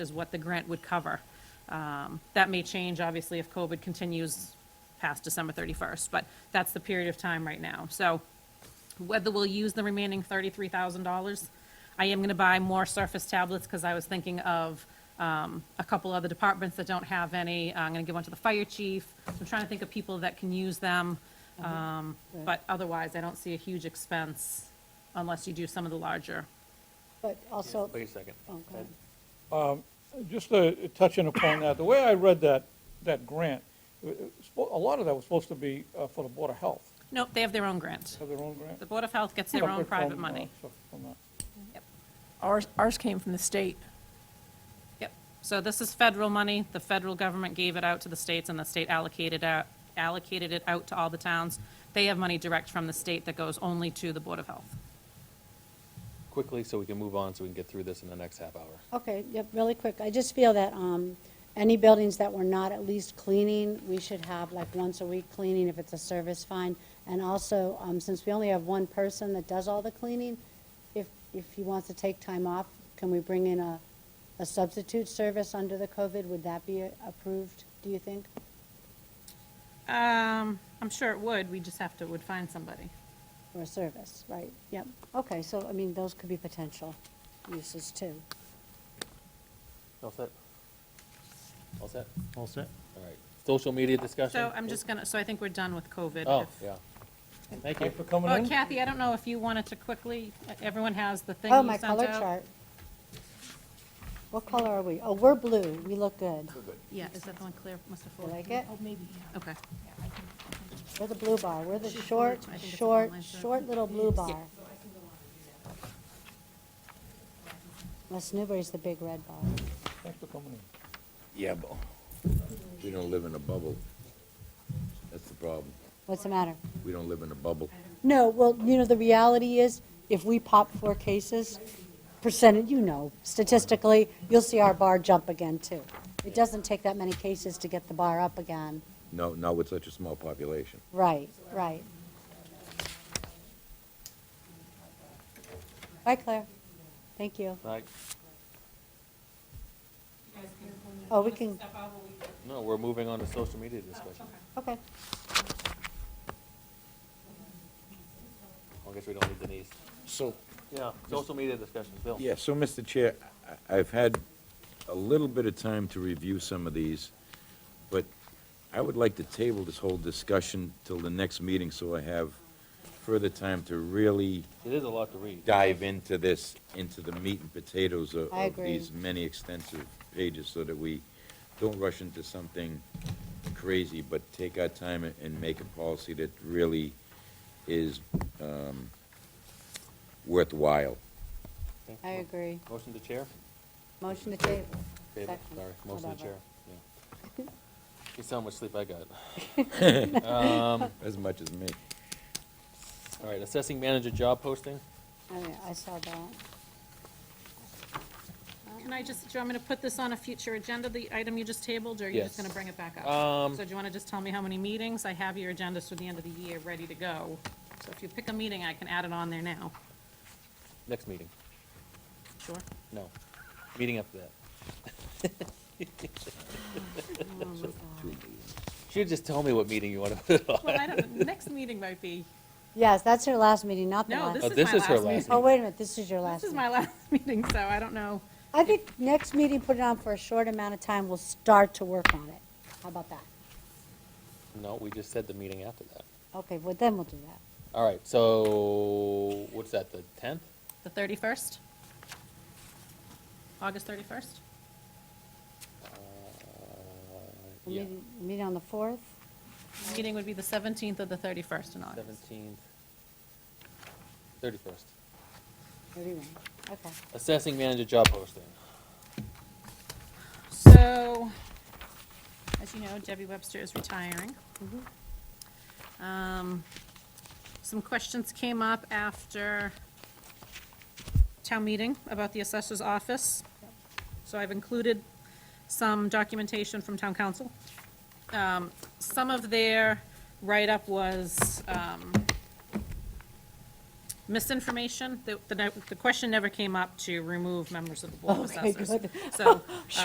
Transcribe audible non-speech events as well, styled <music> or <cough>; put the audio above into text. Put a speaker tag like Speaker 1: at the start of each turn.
Speaker 1: is what the grant would cover. Um, That may change, obviously, if COVID continues past December 31st, but that's the period of time right now. So whether we'll use the remaining $33,000, I am going to buy more Surface tablets because I was thinking of um, a couple other departments that don't have any. I'm going to give one to the fire chief. I'm trying to think of people that can use them. Um, But otherwise, I don't see a huge expense unless you do some of the larger.
Speaker 2: But also,
Speaker 3: Wait a second.
Speaker 2: oh, go ahead.
Speaker 4: Just uh, touching upon that, the way I read that, that grant, it- it's spo- a lot of that was supposed to be uh, for the Board of Health,
Speaker 1: Nope, they have their own grant.
Speaker 4: have their own grant.
Speaker 1: The Board of Health gets their own
Speaker 4: Separate
Speaker 1: private
Speaker 4: from, uh,
Speaker 1: money.
Speaker 4: separate from that.
Speaker 5: Ours, ours came from the state.
Speaker 1: Yep. So this is federal money. The federal government gave it out to the states, and the state allocated out, allocated it out to all the towns. They have money direct from the state that goes only to the Board of Health.
Speaker 3: Quickly, so we can move on, so we can get through this in the next half hour.
Speaker 2: Okay, yep, really quick, I just feel that, um, any buildings that we're not at least cleaning, we should have like once a week cleaning if it's a service fine. And also, um, since we only have one person that does all the cleaning, if, if he wants to take time off, can we bring in a, a substitute service under the COVID? Would that be approved, do you think?
Speaker 1: Um, I'm sure it would. We just have to, would find somebody.
Speaker 2: Or a service, right, yep. Okay, so, I mean, those could be potential uses too.
Speaker 3: All set? All set?
Speaker 6: All set?
Speaker 3: All right. Social media discussion?
Speaker 1: So I'm just gonna, so I think we're done with COVID.
Speaker 3: Oh,
Speaker 1: If-
Speaker 3: yeah. Thank you.
Speaker 4: Thanks for coming
Speaker 1: Oh,
Speaker 4: in.
Speaker 1: Kathy, I don't know if you wanted to quickly, everyone has the thing you
Speaker 2: Oh,
Speaker 1: sent out.
Speaker 2: my color chart. What color are we? Oh, we're blue, we look good.
Speaker 1: Yeah, is that the one Claire must have
Speaker 2: You
Speaker 1: forwarded?
Speaker 2: like it?
Speaker 1: Okay.
Speaker 2: We're the blue bar, we're the short,
Speaker 1: I think it's
Speaker 2: short,
Speaker 1: online, so-
Speaker 2: short little blue bar. West Newbury's the big red bar.
Speaker 4: Thanks for coming in.
Speaker 7: Yeah, but we don't live in a bubble. That's the problem.
Speaker 2: What's the matter?
Speaker 7: We don't live in a bubble.
Speaker 2: No, well, you know, the reality is, if we pop four cases, percentage, you know, statistically, you'll see our bar jump again, too. It doesn't take that many cases to get the bar up again.
Speaker 7: No, not with such a small population.
Speaker 2: Right, right. Bye, Claire. Thank you.
Speaker 3: All right.
Speaker 2: Oh, we can,
Speaker 3: No, we're moving on to social media discussion.
Speaker 2: okay.
Speaker 3: I guess we don't need Denise.
Speaker 7: So.
Speaker 3: Yeah, social media discussion, Bill.
Speaker 7: Yeah, so, Mr. Chair, I- I've had a little bit of time to review some of these, but I would like to table this whole discussion till the next meeting, so I have further time to really
Speaker 3: It is a lot to read.
Speaker 7: dive into this, into the meat and potatoes of
Speaker 2: I
Speaker 7: of
Speaker 2: agree.
Speaker 7: these many extensive pages, so that we don't rush into something crazy, but take our time and- and make a policy that really is um, worthwhile.
Speaker 3: Okay.
Speaker 2: I agree.
Speaker 3: Motion to chair?
Speaker 2: Motion to table.
Speaker 3: Table,
Speaker 2: Second.
Speaker 3: sorry, motion to
Speaker 2: Whatever.
Speaker 3: chair, yeah. You see how much sleep I got. Um,
Speaker 7: As much as me.
Speaker 3: all right, assessing manager job posting?
Speaker 2: I mean, I saw that.
Speaker 1: Can I just, do you want me to put this on a future agenda, the item you just tabled, or are you just
Speaker 3: Yes.
Speaker 1: gonna bring it back up?
Speaker 3: Um,
Speaker 1: So do you wanna just tell me how many meetings? I have your agendas for the end of the year ready to go. So if you pick a meeting, I can add it on there now.
Speaker 3: Next meeting,
Speaker 1: Sure.
Speaker 3: no, meeting after that.
Speaker 2: Oh,
Speaker 3: Should just tell me what meeting you want to put it on. <laughs>
Speaker 1: Well, I don't, <laughs> the next meeting might be,
Speaker 2: Yes, that's her last meeting, not the
Speaker 1: no,
Speaker 2: last.
Speaker 1: this
Speaker 3: Oh,
Speaker 1: is my
Speaker 3: her
Speaker 1: last meeting.
Speaker 3: last
Speaker 2: Oh,
Speaker 3: meeting.
Speaker 2: wait a minute, this is your last.
Speaker 1: This is
Speaker 2: meeting.
Speaker 1: my last <laughs> meeting, so I don't know.
Speaker 2: I think next meeting, put it on for a short amount of time, we'll start to work on it. How about that?
Speaker 3: No, we just said the meeting after that.
Speaker 2: Okay, well, then we'll do that.
Speaker 3: All right, so what's that, the tenth?
Speaker 1: The 31st? August 31st?
Speaker 2: We'll
Speaker 3: Uh, Yeah,
Speaker 2: meet- Meet on the 4th?
Speaker 1: Meeting would be the 17th or the 31st in August.
Speaker 3: seventeenth, thirty-first.
Speaker 2: Thirty-one. Okay.
Speaker 3: Assessing manager job posting.
Speaker 1: So, as you know, Debbie Webster is retiring. Um, Some questions came up after town meeting about the assessor's office. So I've included some documentation from town council. Um, Some of their write-up was um, misinformation, the, the, the question never came up to remove members of the board of
Speaker 2: Okay,
Speaker 1: assessors.
Speaker 2: good.
Speaker 1: So, uh,